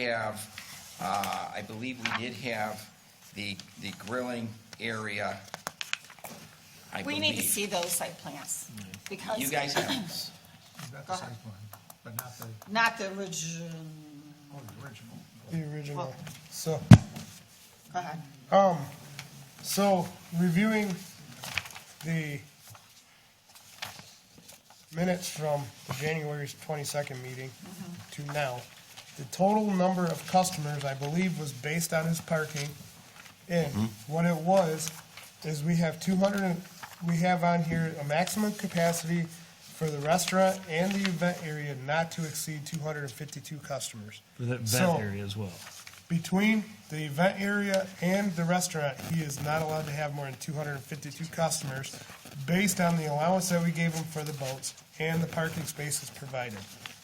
have, uh, I believe we did have the, the grilling area. I We need to believe. see those site plans, because. Mm. You guys have, Not Go the ahead. site plan, but not the, Not the original, oh, the original. The original. Well- So, go ahead. um, so reviewing the minutes from January's twenty-second meeting to now, the total number of customers, I believe, was based on his parking. And Mm-hmm. what it was, is we have two hundred, we have on here a maximum capacity for the restaurant and the event area not to exceed two hundred and fifty-two customers. For that So- vet area as well. between the event area and the restaurant, he is not allowed to have more than two hundred and fifty-two customers based on the allowance that we gave him for the boats and the parking spaces provided.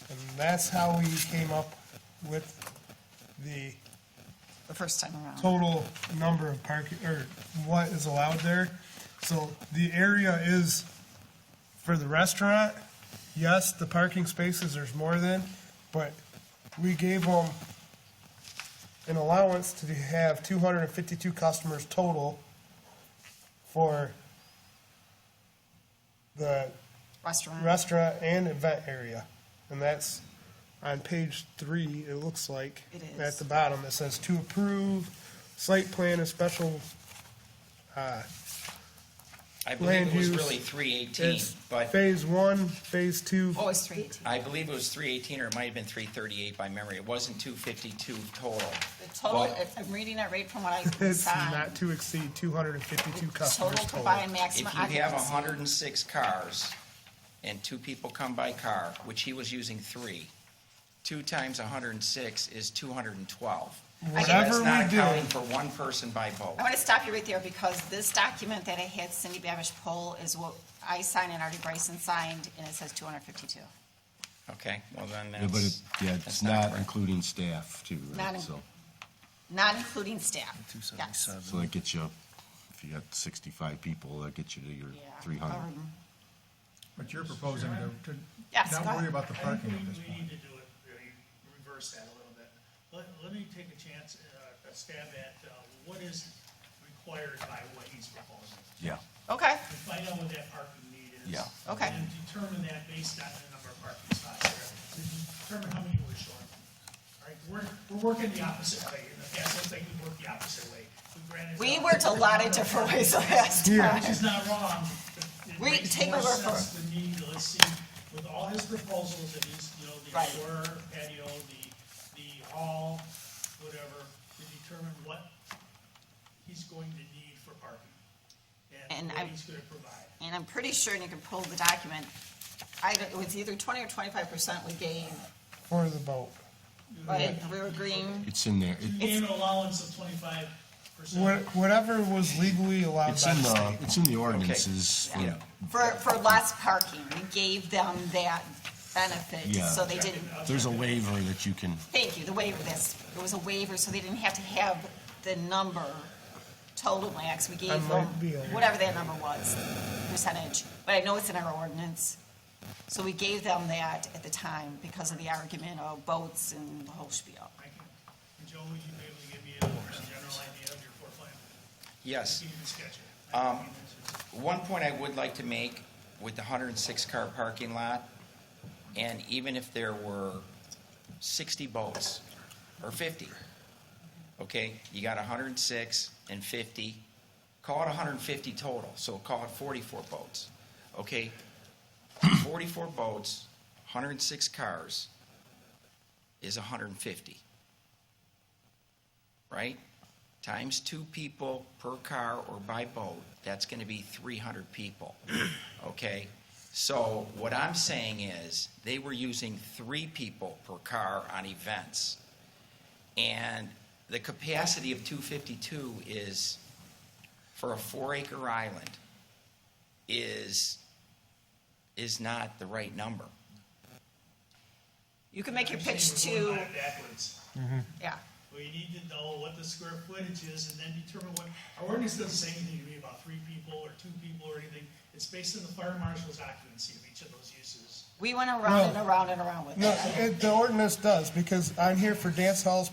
And that's how we came up with the The first time around. total number of parking, or what is allowed there. So the area is for the restaurant, yes, the parking spaces, there's more than, but we gave them an allowance to have two hundred and fifty-two customers total for the Restaurant. restaurant and event area. And that's on page three, it looks like. It is. At the bottom, it says to approve site plan and special, I believe it was Land really use. three eighteen, it's but phase one, phase two, Oh, it's three eighteen. I believe it was three eighteen or it might have been three thirty-eight by memory. It wasn't two fifty-two total. The total, Well, if I'm reading it right from what I it's saw. not to exceed two hundred and fifty-two customers Total total. combined If you maximum have occupancy. hundred and six cars and two people come by car, which he was using three, two times hundred and six is two hundred and twelve. Whatever That's we not accounting do, for one person by boat. I want to stop you right there because this document that I had Cindy Babish pull is what I signed and Artie Bryson signed, and it says two hundred fifty-two. Okay, well then Yeah, but it, that's. yeah, that's it's not correct. including staff too, Not right? in- So, Not including staff. Two seventy-seven. so that gets you, if you got sixty-five people, that gets you to your three hundred. But you're proposing to, Yes, to go not worry ahead. about the parking I at think this we- we point. need to do it, really reverse that a little bit. Let, let me take a chance, uh, a stab at, uh, what is required by what he's proposing. Yeah. Okay, To find out what that parking need is. Yeah. Okay. And determine that based on the number of parking spots there, to determine how many we're short. All right, we're, we're working the opposite way. In the past, looks like we worked the opposite way. We granted- we worked a lot of different ways last Yeah. time. Which is not wrong. but it We makes take more over for- sense than me, let's see, with all his proposals, and he's, you know, the Right. outdoor patio, the, the hall, whatever, to determine what he's going to need for parking. And And what I- he's gonna provide. and I'm pretty sure, and you can pull the document, I, don't- it was either twenty or twenty-five percent we gave, for the boat. right? We were agreeing, It's in there. It- He gave an allowance of twenty-five Wha- percent. Whatever was legally allowed It's by in the the, state. it's in the ordinances. for- Yeah. for, for less parking, we gave them that benefit, Yeah. so they didn't, There's a waiver that you can, thank you, the waiver, this, it was a waiver, so they didn't have to have the number total max, we I gave might them be aware. whatever that number was, percentage, but I know it's in our ordinance. So we gave them that at the time because of the argument of boats and the whole spiel. I can- Joe, would you be able to give me a a general idea of your floor plan? Yes. Give me the sketch. of it. One point I would like to make with the 106-car parking lot, and even if there were 60 boats or 50, okay, you got 106 and 50, call it 150 total, so call it 44 boats, okay? 44 boats, 106 cars is 150, right? times two people per car or by boat, that's going to be 300 people, okay? So what I'm saying is, they were using three people per car on events, and the capacity of 252 is, for a four-acre island, is, is not the right number. You can make your I'm saying pitch we're going to, about it Backwards. yeah. We need to know what the square footage is and then determine what, our ordinance doesn't say anything to me about three people or two people or anything. It's based on the fire marshal's occupancy of each of those uses. We went around and No. around and around with No, that. it, the ordinance does, because I'm here for dance halls,